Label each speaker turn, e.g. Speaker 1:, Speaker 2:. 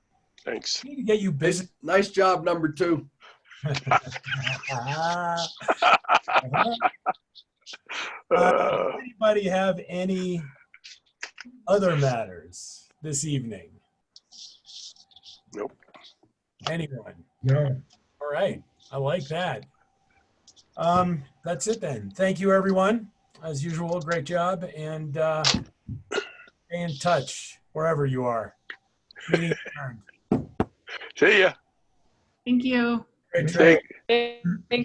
Speaker 1: Thanks.
Speaker 2: need to get you busy.
Speaker 3: Nice job, number two.
Speaker 1: Uh,
Speaker 2: Anybody have any other matters this evening?
Speaker 1: Nope.
Speaker 2: Anyone?
Speaker 4: No.
Speaker 2: All right, I like that. Um, that's it then. Thank you, everyone. As usual, great job, and uh, stay in touch wherever you are. Meeting adjourned.
Speaker 1: see ya.
Speaker 5: Thank you.
Speaker 2: Great trip.
Speaker 1: Thank-